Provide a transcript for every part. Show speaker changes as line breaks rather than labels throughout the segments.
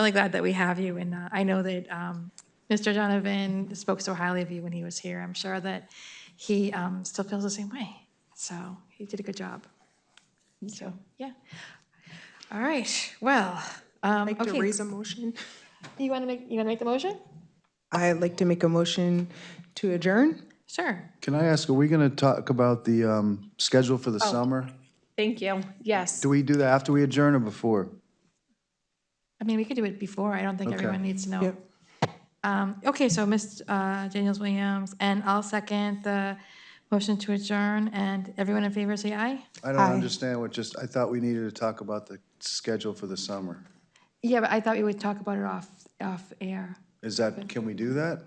really glad that we have you, and uh, I know that um, Mr. Donovan spoke so highly of you when he was here. I'm sure that he um, still feels the same way, so he did a good job. So, yeah. All right, well, um,
Like to
okay.
raise a motion?
You want to make, you want to make the motion?
I'd like to make a motion to adjourn.
Sure.
Can I ask, are we going to talk about the um, schedule for the
Oh.
summer?
Thank you. Yes.
Do we do that after we adjourn or before?
I mean, we could do it before. I don't think
Okay.
everyone needs to know. Um, Okay, so Ms. uh, Daniels-Williams, and I'll second the motion to adjourn, and everyone in favor say aye?
I don't understand what just, I thought we needed to talk about the schedule for the summer.
Yeah, but I thought we would talk about it off, off air.
Is that, can we do that?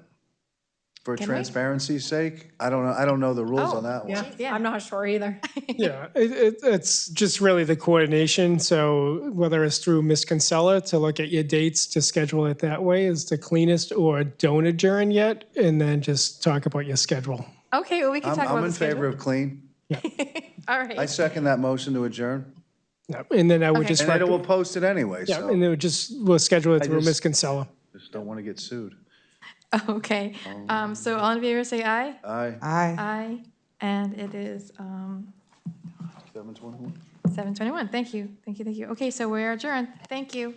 For
we? Oh,
transparency's sake? I don't know, I don't know the rules on that one.
Yeah.
I'm not sure either.
Yeah, it, it, it's just really the coordination. So whether it's through Miss Kinsella to look at your dates to schedule it that way is the cleanest, or don't adjourn yet, and then just talk about your schedule.
Okay, well, we can
I'm,
talk about
I'm
the
in favor
schedule.
of clean.
All
I
right,
second that motion to adjourn.
Yep. And then I would
Okay.
just,
And then
rec-
we'll post it anyway,
yeah, and
so
then we just we'll schedule it through
just-
Miss Kinsella.
just don't want to get sued.
okay. Um, So all in favor say aye?
Aye,
Aye.
Aye, and it is um,
721.
7:21. Thank you, thank you, thank you. Okay, so we're adjourned. Thank you.